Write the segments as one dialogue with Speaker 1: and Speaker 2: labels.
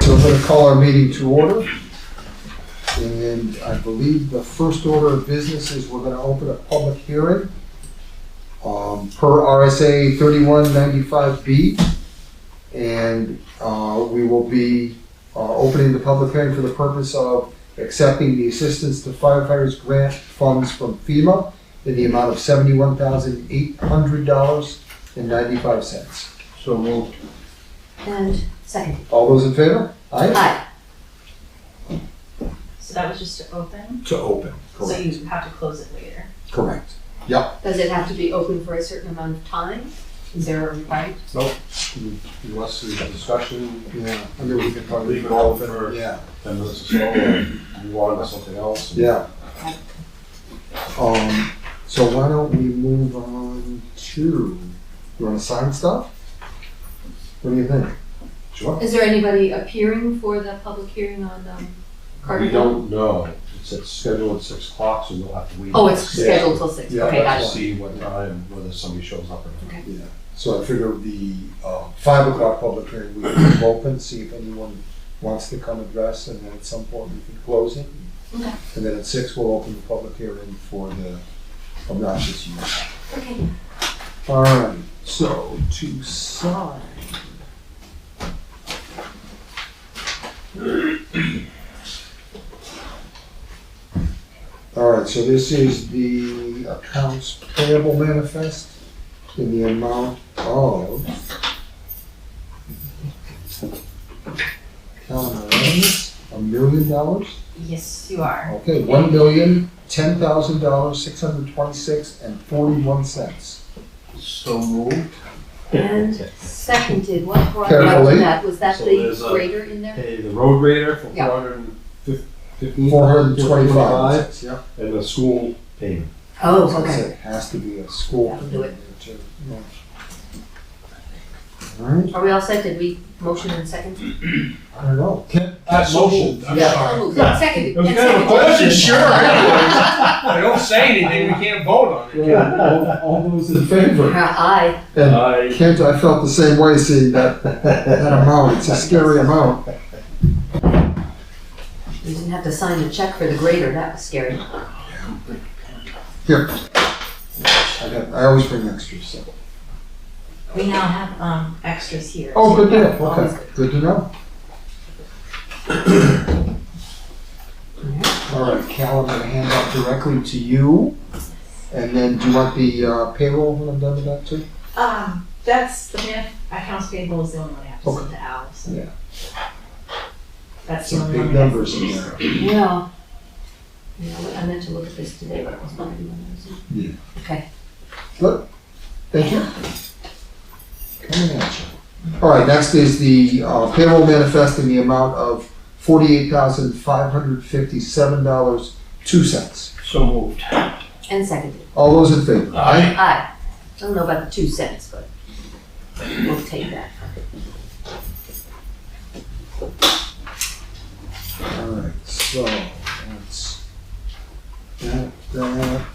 Speaker 1: going to call our meeting to order. And I believe the first order of business is we're going to open a public hearing um, per RSA 3195B. And uh, we will be uh, opening the public hearing for the purpose of accepting the assistance to firefighters grant funds from FEMA in the amount of $71,800.95.
Speaker 2: So moved.
Speaker 3: And second.
Speaker 1: All those in favor?
Speaker 3: Aye.
Speaker 4: So that was just to open,
Speaker 1: To open.
Speaker 4: so
Speaker 1: Correct.
Speaker 4: you have to close it later.
Speaker 1: Correct.
Speaker 3: Does it have to be open for a certain amount of time? Is there a requirement?
Speaker 2: Unless there's a discussion,
Speaker 1: Yeah, I mean, we could probably.
Speaker 2: Leave it open for-
Speaker 1: Yeah,
Speaker 2: then this is over, move on to something else.
Speaker 1: yeah. Um, so why don't we move on to, you wanna sign stuff? What do you think?
Speaker 2: Sure.
Speaker 3: Is there anybody appearing for the public hearing on, um, Carter
Speaker 2: We
Speaker 3: Hill?
Speaker 2: don't know. It's it's scheduled at six o'clock, so we'll have to wait.
Speaker 3: Oh, it's scheduled till six,
Speaker 1: Yeah,
Speaker 3: okay, got
Speaker 2: To
Speaker 3: it.
Speaker 2: see what time, whether somebody shows up or not.
Speaker 1: So I figure the, uh, five o'clock public hearing, we can leave open, see if anyone wants to come address, and then at some point we can close it.
Speaker 3: Okay.
Speaker 1: And then at six, we'll open the public hearing for the obnoxious use.
Speaker 3: Okay.
Speaker 1: All right, so to sign. All right, so this is the accounts payable manifest in the amount of. Count items, a million dollars?
Speaker 4: Yes, you are.
Speaker 1: Okay, one million, ten thousand dollars, six hundred twenty-six and forty-one cents.
Speaker 2: So moved.
Speaker 3: And seconded, what brought you up
Speaker 1: Carefully.
Speaker 3: to that? Was that
Speaker 2: So
Speaker 3: the
Speaker 2: there's a-
Speaker 3: grader in there?
Speaker 2: Hey, the road grader for
Speaker 3: Yeah.
Speaker 2: four hundred and fifteen.
Speaker 1: Four hundred and twenty-five. Yeah.
Speaker 2: And the school payment.
Speaker 3: Oh,
Speaker 1: So
Speaker 3: okay.
Speaker 1: It has to be a school.
Speaker 3: That'll do it.
Speaker 1: Alright,
Speaker 3: Are we all set? Did we motion and second?
Speaker 1: I don't know.
Speaker 5: Uh,
Speaker 2: That motion, I'm
Speaker 1: Yeah.
Speaker 3: Oh, moved.
Speaker 5: It
Speaker 3: Seconded.
Speaker 5: was
Speaker 3: and
Speaker 5: kind of a
Speaker 3: seconded.
Speaker 5: question, sure. I don't say anything, we can't vote on it.
Speaker 1: All all those in favor?
Speaker 3: Uh, Aye.
Speaker 1: And
Speaker 5: I
Speaker 1: Kent, I felt the same way seeing that, that amount, it's a scary amount.
Speaker 3: You didn't have to sign the check for the grader, that was scary.
Speaker 1: Here. I got, I always bring extras, so.
Speaker 4: We now have, um, extras here.
Speaker 1: Oh, good to know,
Speaker 3: Always
Speaker 1: okay, good to know. Alright, Cal, I'm gonna hand that directly to you. And then do you want the uh, payroll when I'm done with that too?
Speaker 4: Um, that's, the man, accounts payable is the only one I have to send to Al, so.
Speaker 1: Yeah.
Speaker 4: That's the
Speaker 1: Some
Speaker 4: only one.
Speaker 1: big
Speaker 4: I have.
Speaker 1: numbers in there.
Speaker 3: Yeah. Yeah, I meant to look at this today, but it was not in my
Speaker 1: Yeah.
Speaker 3: notes. Okay.
Speaker 1: Thank you. Coming at you. All right, next is the uh, payroll manifest in the amount of forty-eight thousand five hundred fifty-seven dollars, two cents.
Speaker 5: so moved.
Speaker 3: And seconded.
Speaker 1: All those in favor?
Speaker 5: I
Speaker 3: Aye. I don't know about the two cents, but we'll take that.
Speaker 1: All right, so that's that, that.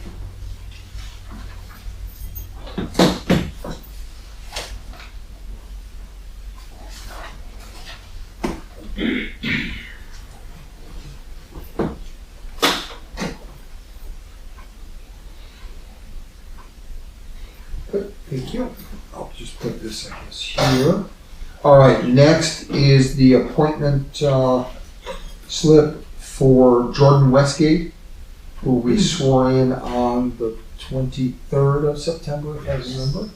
Speaker 1: Good, Thank you. I'll just put this, I guess, here. All right, next is the appointment, uh, slip for Jordan Westgate, who we swore in on the twenty-third of September, if I remember.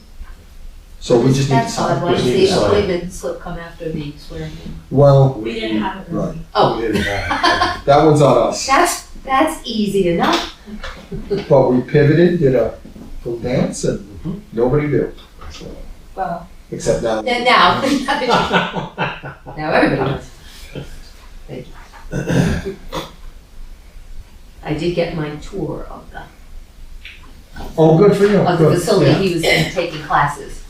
Speaker 1: So we just need to
Speaker 3: That's odd.
Speaker 1: sign.
Speaker 3: Why does
Speaker 2: Just need
Speaker 3: the
Speaker 2: to sign.
Speaker 3: appointment slip come after the swearing in?
Speaker 1: Well,
Speaker 4: We didn't have it really.
Speaker 3: Oh,
Speaker 2: We didn't have
Speaker 1: that one's on us,
Speaker 3: that's, that's easy enough.
Speaker 1: but we pivoted, did a little dance, and nobody knew,
Speaker 4: Well,
Speaker 1: except now.
Speaker 3: Then now, now everybody knows. Thank you. I did get my tour of the,
Speaker 1: Oh, good for you.
Speaker 3: of the
Speaker 1: good,
Speaker 3: facility.
Speaker 1: yeah.
Speaker 3: He was in taking classes.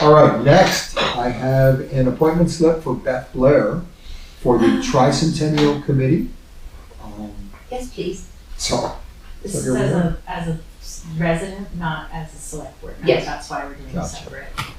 Speaker 1: All right, next, I have an appointment slip for Beth Blair for the tricentennial committee. Um,
Speaker 3: Yes, please.
Speaker 1: So,
Speaker 4: this
Speaker 1: So
Speaker 4: is
Speaker 1: here we
Speaker 4: as a, as a resident, not as a select board member,
Speaker 3: Yes.
Speaker 4: that's why we're doing it
Speaker 1: Gotcha.
Speaker 4: separate.